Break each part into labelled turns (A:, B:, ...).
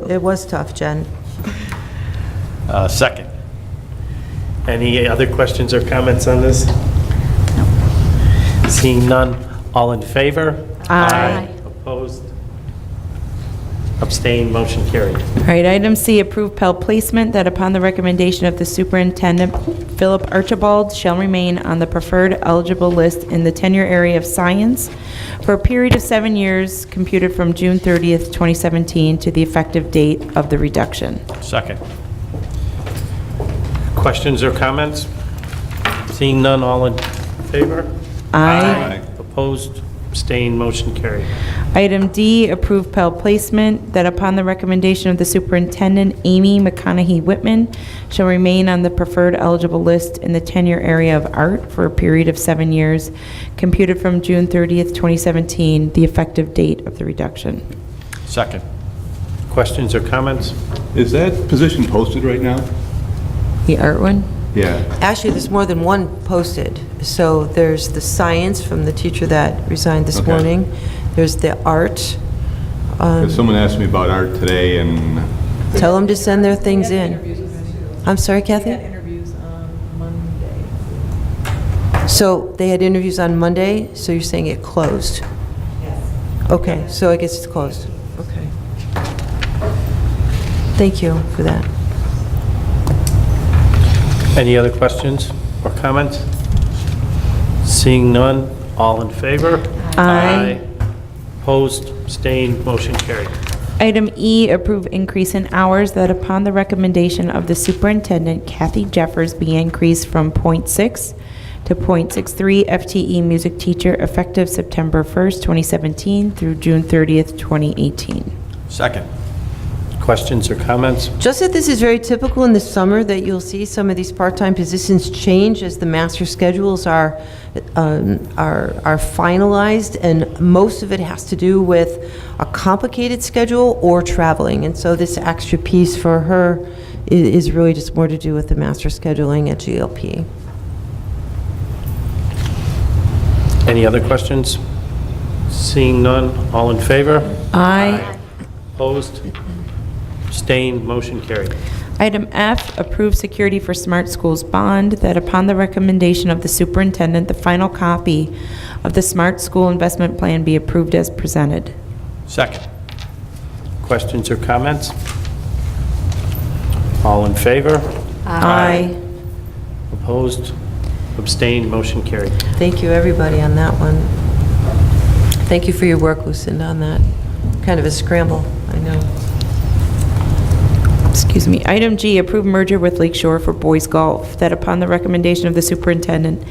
A: It was tough, Jen.
B: Uh, Second.
C: Any other questions or comments on this? Seeing none, all in favor?
A: Aye.
C: Opposed? Abstained, motion carried.
D: All right, item C, approve Pell placement that upon the recommendation of the superintendent, Philip Archibald shall remain on the preferred eligible list in the tenure area of science for a period of seven years computed from June 30th, 2017 to the effective date of the reduction.
B: Second.
C: Questions or comments? Seeing none, all in favor?
D: Aye.
C: Opposed? Abstained, motion carried.
D: Item D, approve Pell placement, that upon the recommendation of the superintendent, Amy McConaughey Whitman shall remain on the preferred eligible list in the tenure area of art for a period of seven years, computed from June 30th, 2017, the effective date of the reduction.
B: Second.
C: Questions or comments?
E: Is that position posted right now?
D: The art one?
E: Yeah.
A: Actually, there's more than one posted. So there's the science from the teacher that resigned this
E: Okay.
A: morning. There's the art.
E: 'Cause Someone asked me about art today, and
A: Tell them to send their things in. I'm sorry,
F: We had
A: Kathy?
F: interviews on Monday.
A: So they had interviews on Monday, so you're saying it closed? Yes. Okay, so I guess it's closed. Okay. Thank you for that.
C: Any other questions or comments? Seeing none, all in favor?
D: Aye.
C: Opposed? Abstained, motion carried.
D: Item E, approve increase in hours that upon the recommendation of the superintendent Kathy Jeffers be increased from .6 to .63 FTE E music teacher effective September 1st, 2017 through June 30th, 2018.
B: Second.
C: Questions or comments?
A: Just that this is very typical in the summer, that you'll see some of these part-time positions change as the master schedules are, um, are are finalized, and most of it has to do with a complicated schedule or traveling. And so this extra piece for her i- is really just more to do with the master scheduling at GLP.
C: Any other questions? Seeing none, all in favor?
D: Aye.
C: Opposed? Abstained, motion carried.
D: Item F, approve security for Smart Schools bond, that upon the recommendation of the superintendent, the final copy of the Smart School Investment Plan be approved as presented.
B: Second.
C: Questions or comments? All in favor?
D: Aye.
C: Opposed? Abstained, motion carried.
A: Thank you, everybody, on that one. Thank you for your work, Lucinda, on that. Kind of a scramble, I know.
D: Excuse me. Item G, approve merger with Lake Shore for boys golf, that upon the recommendation of the superintendent,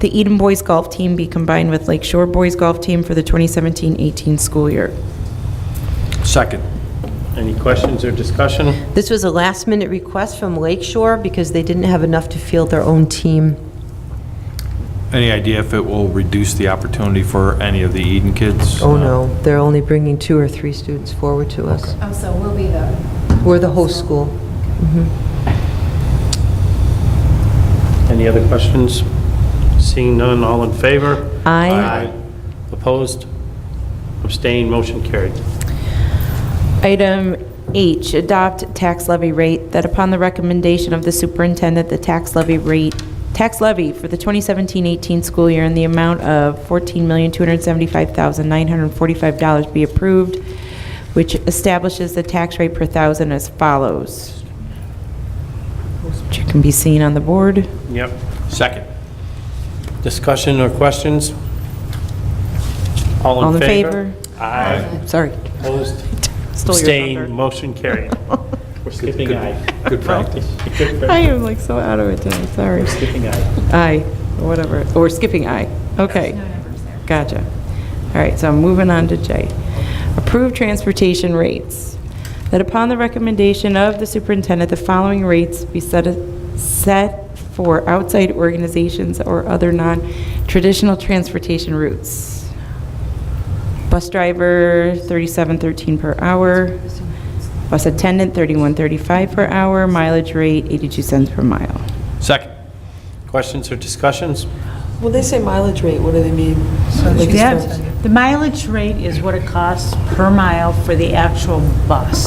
D: the Eden Boys Golf Team be combined with Lake Shore Boys Golf Team for the 2017-18 school year.
B: Second.
C: Any questions or discussion?
A: This was a last-minute request from Lake Shore because they didn't have enough to field their own team.
G: Any idea if it will reduce the opportunity for any of the Eden kids?
A: Oh, no, they're only bringing two or three students forward to us.
H: Oh, so we'll be the,
A: We're the host school.
C: Any other questions? Seeing none, all in favor?
D: Aye.
C: Opposed? Abstained, motion carried.
D: Item H, adopt tax levy rate, that upon the recommendation of the superintendent, the tax levy rate, tax levy for the 2017-18 school year in the amount of $14,275,945 be approved, which establishes the tax rate per thousand as follows. Which can be seen on the board.
C: Yep.
B: Second.
C: Discussion or questions? All in favor? Aye.
D: Sorry.
C: Opposed?
D: Stole your
C: Abstained,
D: thunder.
C: motion carried. We're skipping aye.
G: Good practice.
C: Good
D: I
C: practice.
D: am like so out of it today, sorry.
C: Skipping aye.
D: Aye, or whatever, or skipping aye. Okay. Gotcha. All right, so I'm moving on to J. Approved transportation rates. That upon the recommendation of the superintendent, the following rates be set, set for outside organizations or other non-traditional transportation routes. Bus driver, 37.13 per hour. Bus attendant, 31.35 per hour. Mileage rate, 82 cents per mile.
B: Second.
C: Questions or discussions?
I: When they say mileage rate, what do they mean? Like,
F: The mileage rate is what it costs per mile for the actual bus.